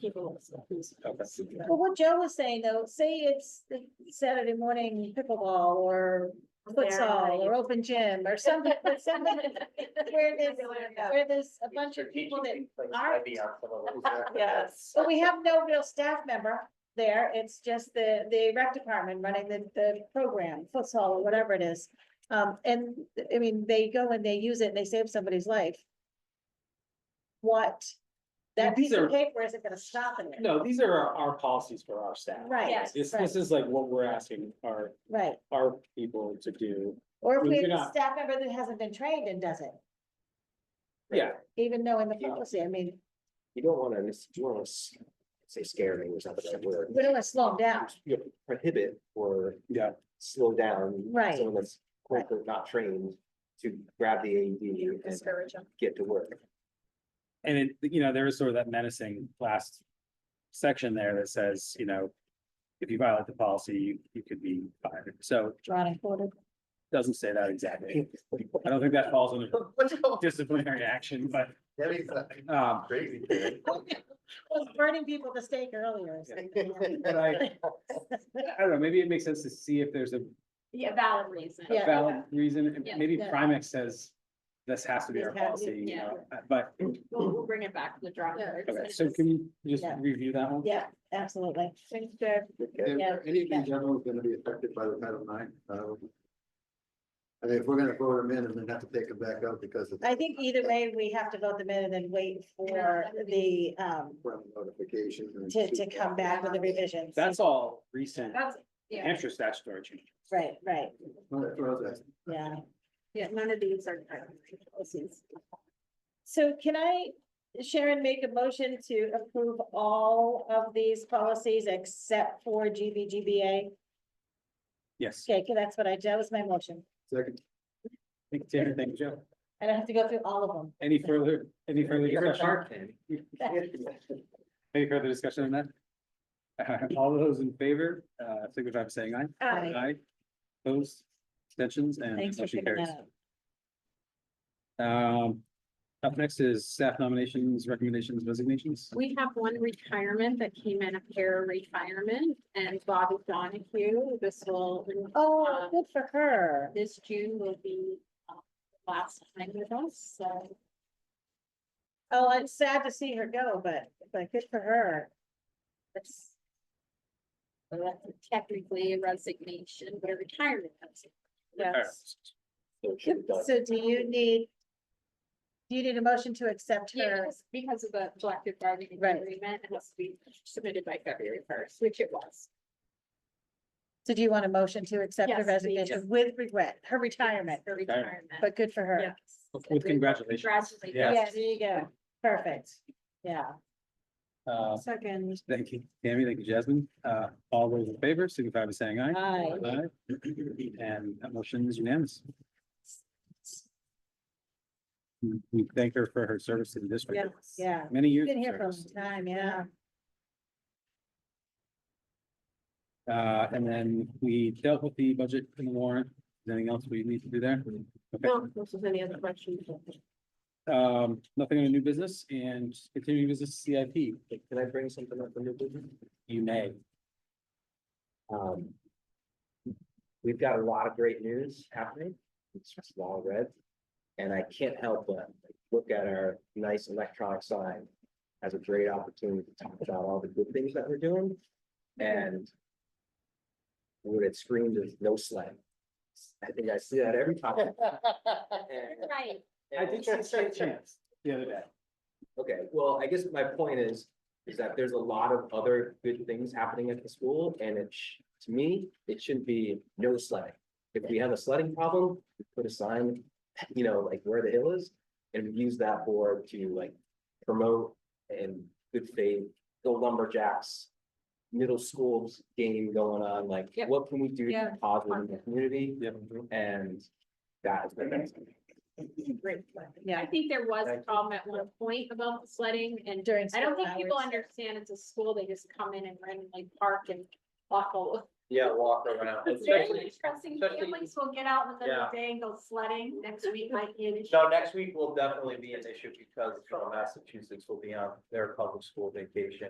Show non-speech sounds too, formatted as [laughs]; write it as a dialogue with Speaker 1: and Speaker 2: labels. Speaker 1: people.
Speaker 2: Oh, Okay.
Speaker 3: Well, what Joe was saying though, say it's the Saturday morning pickleball or futsal or open gym or something, but something [laughs]
Speaker 1: [laughs]
Speaker 3: where there's, where there's a bunch of people that aren't. [laughs]
Speaker 1: Yes.
Speaker 3: But we have no real staff member there. It's just the, the rec department running the, the program, futsal or whatever it is. Um, and I mean, they go and they use it and they save somebody's life. What? That
Speaker 2: These
Speaker 3: piece
Speaker 2: are-
Speaker 3: of paper isn't gonna stop it.
Speaker 2: No, these are our, our policies for our staff.
Speaker 3: Right,
Speaker 1: Yes,
Speaker 2: This,
Speaker 3: right.
Speaker 2: this is like what we're asking our,
Speaker 3: right.
Speaker 2: our people to do.
Speaker 3: Or if we
Speaker 2: Well,
Speaker 3: have
Speaker 2: you're
Speaker 3: a
Speaker 2: not-
Speaker 3: staff member that hasn't been trained and does it,
Speaker 2: Yeah,
Speaker 3: even knowing the
Speaker 4: You-
Speaker 3: policy, I mean,
Speaker 4: You don't wanna, mis- you wanna s- say scare me was not the right word.
Speaker 3: we don't wanna slow them down.
Speaker 4: You know, prohibit or.
Speaker 2: Yeah.
Speaker 4: Slow down.
Speaker 3: Right.
Speaker 4: Someone that's quote unquote not trained to grab the AED and
Speaker 1: Discourage them.
Speaker 4: get to work.
Speaker 2: and it, you know, there is sort of that menacing last section there that says, you know, if you violate the policy, you, you could be fired. So it
Speaker 3: Drawn and quartered.
Speaker 2: doesn't say that exactly. I don't think that
Speaker 3: [laughs]
Speaker 2: falls under disciplinary action, but,
Speaker 5: That is uh,
Speaker 2: um,
Speaker 5: crazy.
Speaker 3: Was burning people to stake earlier. or something.
Speaker 2: but I, I don't know, maybe it makes sense to see if there's a
Speaker 1: Yeah, valid reason.
Speaker 2: a
Speaker 3: Yeah.
Speaker 2: valid reason, and
Speaker 1: Yeah.
Speaker 2: maybe
Speaker 3: Yeah.
Speaker 2: Primex says this has to be
Speaker 3: This
Speaker 2: our
Speaker 3: has to-
Speaker 2: policy, you
Speaker 1: yeah.
Speaker 2: know, uh, but,
Speaker 1: We'll, we'll bring it back to the drawing
Speaker 3: Yeah.
Speaker 1: board.
Speaker 2: okay, so can you just
Speaker 3: Yeah.
Speaker 2: review that one?
Speaker 3: Yeah, absolutely.
Speaker 5: If
Speaker 3: Yeah.
Speaker 5: Any of these general is gonna be affected by the Title IX. um, I mean, if we're gonna vote them in and then have to take them back out because of.
Speaker 3: I think either way, we have to vote them in and then wait for the, um,
Speaker 5: from Notification. and-
Speaker 3: to, to come back with the revisions.
Speaker 2: That's all recent
Speaker 1: That's, Oh, yeah,
Speaker 2: Hampshire statutory change.
Speaker 3: Right, right,
Speaker 5: Well, that's what I was asking.
Speaker 3: yeah.
Speaker 1: yeah, none of these are. policies.
Speaker 3: So can I, Sharon, make a motion to approve all of these policies except for GBGBA?
Speaker 2: Yes,
Speaker 3: Okay, 'cause that's what I, that was my motion.
Speaker 5: Second,
Speaker 2: thank you, thank you, Joe.
Speaker 3: I don't have to go through all of them.
Speaker 2: Any further, any further
Speaker 4: You're a [laughs]
Speaker 2: discussion?
Speaker 4: shark, Ken.
Speaker 2: Any further discussion on that? Uh, All those in favor, uh, signify by saying aye.
Speaker 3: Aye.
Speaker 2: Aye. Opposed, extensions and
Speaker 3: Thanks for
Speaker 2: motion
Speaker 3: picking
Speaker 2: carries.
Speaker 3: that up.
Speaker 2: Um, up next is staff nominations, recommendations, resignations.
Speaker 1: We have one retirement that came in, a pair retirement, and Bobby Donahue, this will, Uh,
Speaker 3: Oh, good for her.
Speaker 1: this June will be uh, last time with us, so.
Speaker 3: Oh, it's sad to see her go, but, but good for her.
Speaker 1: That's so that's technically a resignation, but a retirement.
Speaker 3: Yes.
Speaker 4: So it should be done.
Speaker 3: So do you need? Do you need a motion to accept her?
Speaker 1: Yes, because of the collective bargaining
Speaker 3: Right.
Speaker 1: agreement, it has to be submitted by February first, which it was.
Speaker 3: So do you want a motion to accept her
Speaker 1: Yes, we
Speaker 3: resignation
Speaker 1: just-
Speaker 3: with regret, her retirement,
Speaker 1: For
Speaker 2: Retirement.
Speaker 1: retirement.
Speaker 3: but good for her?
Speaker 1: Yes.
Speaker 2: With congratulations.
Speaker 1: Congratulations.
Speaker 2: Yeah.
Speaker 3: Yeah, there you go. Perfect. Yeah.
Speaker 2: Uh,
Speaker 3: Second.
Speaker 2: thank you, Tammy, thank you, Jasmine. Uh, all those in favor, signify by saying aye.
Speaker 3: Aye.
Speaker 2: Aye. And that motion is unanimous. We thank her for her service to the district.
Speaker 3: Yeah.
Speaker 2: Many years.
Speaker 3: Been
Speaker 2: of
Speaker 3: here for a
Speaker 2: service.
Speaker 3: long time, yeah.
Speaker 2: Uh, and then we dealt with the budget and the warrant. Is there Anything else we need to do there? Okay,
Speaker 1: this is any other questions?
Speaker 2: um, nothing on the new business and continuing business CIP,
Speaker 4: Can I bring something up from your business?
Speaker 2: you may.
Speaker 4: Um. We've got a lot of great news happening. It's just all red. And I can't help but look at our nice electronic sign as a great opportunity to talk about all the good things that we're doing and. What it screamed is no slang. I think I see that every time. And-
Speaker 1: Right.
Speaker 2: I did see State Chance the other day.
Speaker 4: Okay, well, I guess my point is, is that there's a lot of other good things happening at the school and it, sh- to me, it shouldn't be no sledding. If we have a sledding problem, we put a sign, you know, like where the hill is, and we use that board to like promote and good faith, the Lumberjacks. Middle schools game going on, like
Speaker 1: Yep.
Speaker 4: what can we do to
Speaker 1: Yeah.
Speaker 4: positive in the community
Speaker 2: Yep.
Speaker 4: and that is the next.
Speaker 3: Yeah.
Speaker 1: I think there was
Speaker 4: Thank
Speaker 1: a
Speaker 4: you.
Speaker 1: problem at one point about the sledding and
Speaker 3: During.
Speaker 1: I don't
Speaker 3: school
Speaker 1: think people
Speaker 3: hours.
Speaker 1: understand it's a school, they just come in and randomly park and
Speaker 6: buckle.
Speaker 4: Yeah, walk around.
Speaker 6: Especially-
Speaker 1: Trusting
Speaker 4: especially-
Speaker 1: families will get out in the middle
Speaker 4: Yeah.
Speaker 1: of the day and go sledding next week, my kid is.
Speaker 4: No, next week will definitely be an issue because uh, Massachusetts will be on their public school vacation.